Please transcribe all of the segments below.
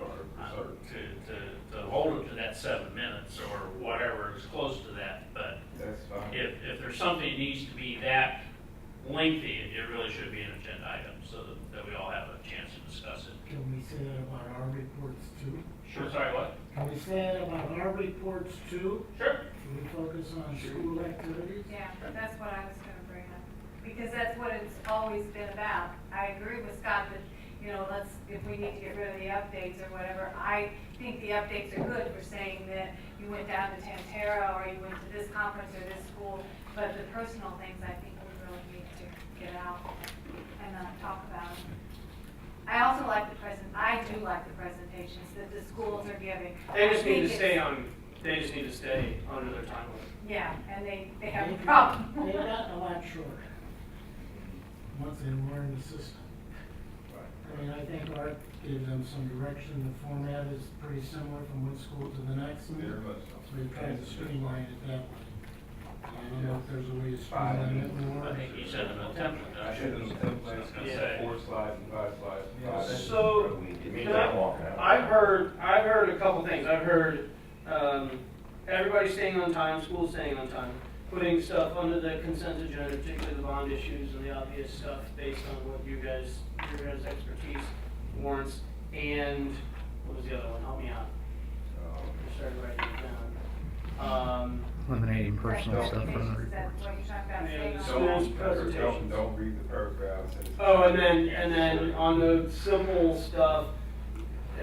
or to, to, to hold it to that seven minutes or whatever is close to that, but That's fine. if, if there's something that needs to be that lengthy, it it really should be an agenda item, so that, that we all have a chance to discuss it. Can we say that about our reports too? Sure, sorry, what? Can we say that about our reports too? Sure. Can we focus on school activities? Yeah, that's what I was gonna bring up, because that's what it's always been about. I agree with Scott that, you know, let's, if we need to get rid of the updates or whatever, I think the updates are good for saying that you went down to Tantera, or you went to this conference or this school, but the personal things I think we really need to get out and uh, talk about. I also like the present, I do like the presentations that the schools are giving. They just need I to think stay it's- on, they just need to stay on another timeline. Yeah, and they, they have a problem. They've gotten a lot shorter. Once they learn the system. I mean, I think Art gave them some direction. The format is pretty similar from one school to the next. Very So much we tried to streamline it that way. I don't know if there's a way to streamline it more. I think you said an attempt. so. I should have done I was like gonna say. four slides and five slides. and Yeah, five. that's- So, Me can I- not walking out. I've heard, I've heard a couple things. I've heard, um, everybody staying on time, school staying on time, putting stuff under the consent agenda, particularly the bond issues and the obvious stuff based on what you guys, your guys' expertise warrants. And, what was the other one? Help me out. Um, I started writing it down. Um, Eliminating personal stuff from the Presentations, report. That's what you're talking about, staying Yeah, on so- track. Schools Don't- don't- presentations. Don't read the paragraphs. Oh, and then, and then on the simple stuff,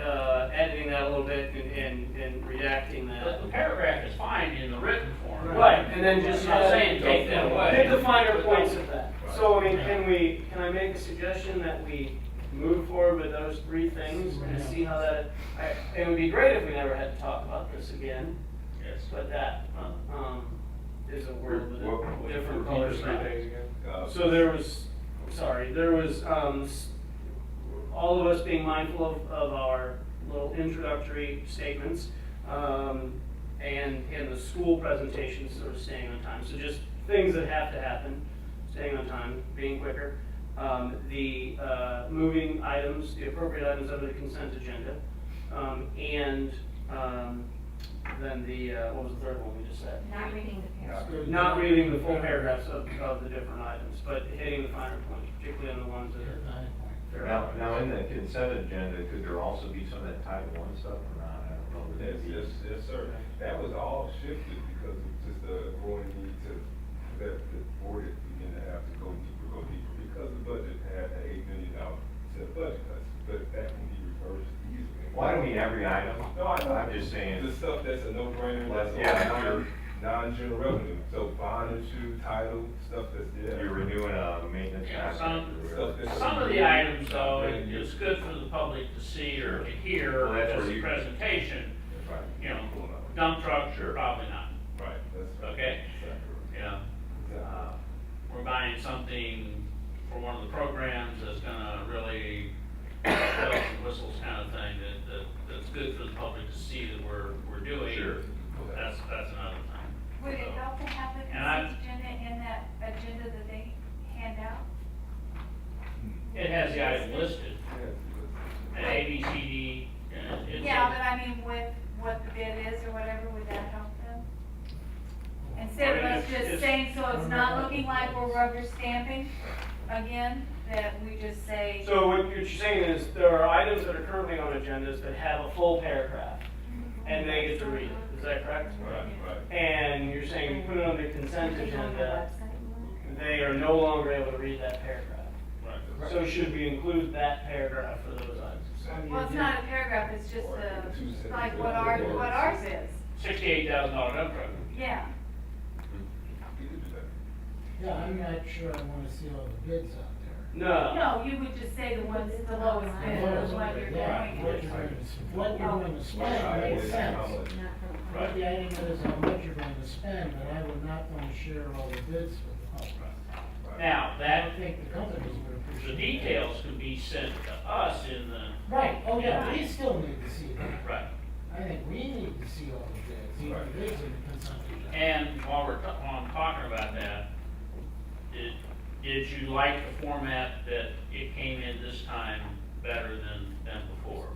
uh, editing that a little bit and, and, and redacting But the that. paragraph is fine in the written form. Right, and then just. I'm not saying take that away. Hit the finer points of that. So, I mean, can we, can I make a suggestion that we move forward with those three things and see how that, I, it would be great if we never had to talk about this again, Yes. but that, um, is a word with What- a what- different repeat color the scheme. thing Uh, So there was, I'm sorry, there was, um, s- all of us being mindful of, of our little introductory statements, um, and, and the school presentations sort of staying on time, so just things that have to happen, staying on time, being quicker. Um, the, uh, moving items, the appropriate items under the consent agenda, um, and, um, then the, uh, what was the third one we just said? Not reading the page. not reading the full paragraphs of, of the different items, but hitting the finer points, particularly on the ones that are. Now, now in the consent agenda, could there also be some of that type one stuff or not? I don't know. Would Yes, that be- yes, yes, sir. That was all shifted because of just the growing need to, that the board is beginning to have to go deeper, go deeper, because the budget had an eight million dollar set of budget cuts, but that can be reversed easily. Well, I don't mean every item. No, I know. I'm just The saying, stuff that's a no-brainer, that's Yeah. all non-general revenue, so bond issue, title, stuff that's there. you're renewing a maintenance Yeah, contract. some- or whatever. Some of the items, though, it- it's good for the public to see or to hear Well, that's as where a you- presentation, Right. you know, Right, dump trucks, Sure. probably not, that's right. Okay. Exactly. you know. Exactly. Uh, We're buying something for one of the programs that's gonna really bells and whistles kind of thing that, that, that's good for the public to see that we're, we're doing. Sure. That's, that's another thing. Would it help to have the And I- consent agenda in that agenda that they hand out? It has the item listed, Yeah. and A, B, C, D, uh, and it's. Yeah, but I mean, with what the bid is or whatever, would that help them? Instead of us Well, it's- just saying, so it's not looking like we're rubber stamping again, that we just say, So what you're saying is there are items that are currently on agendas that have a full paragraph and they get to read it, is that correct? Right, right. And you're saying we put it on the consent agenda, they are no longer able to read that paragraph. Right. So should we include that paragraph for those items? well, it's not a paragraph, it's just a, like what our, what ours is. Sixty-eight thousand dollar dump truck. Yeah, You could do that. Yeah, I'm not sure I wanna see all the bids out there. No, no, you would just say the ones, the lowest bid, the one you're Yeah, going What at. you're gonna, what you're gonna spend Right, makes it's sense. how much. But the item is how much you're gonna spend, but I would not wanna share all the bids with the public. Now, I that, don't think the companies would the appreciate that. details can be sent to us in the, Right, oh yeah, we still need to see that. right. I think we need to see all the bids, even Right. the bids in the consumption. And while we're, ta- while I'm talking about that, did, did you like the format that it came in this time better than, than before?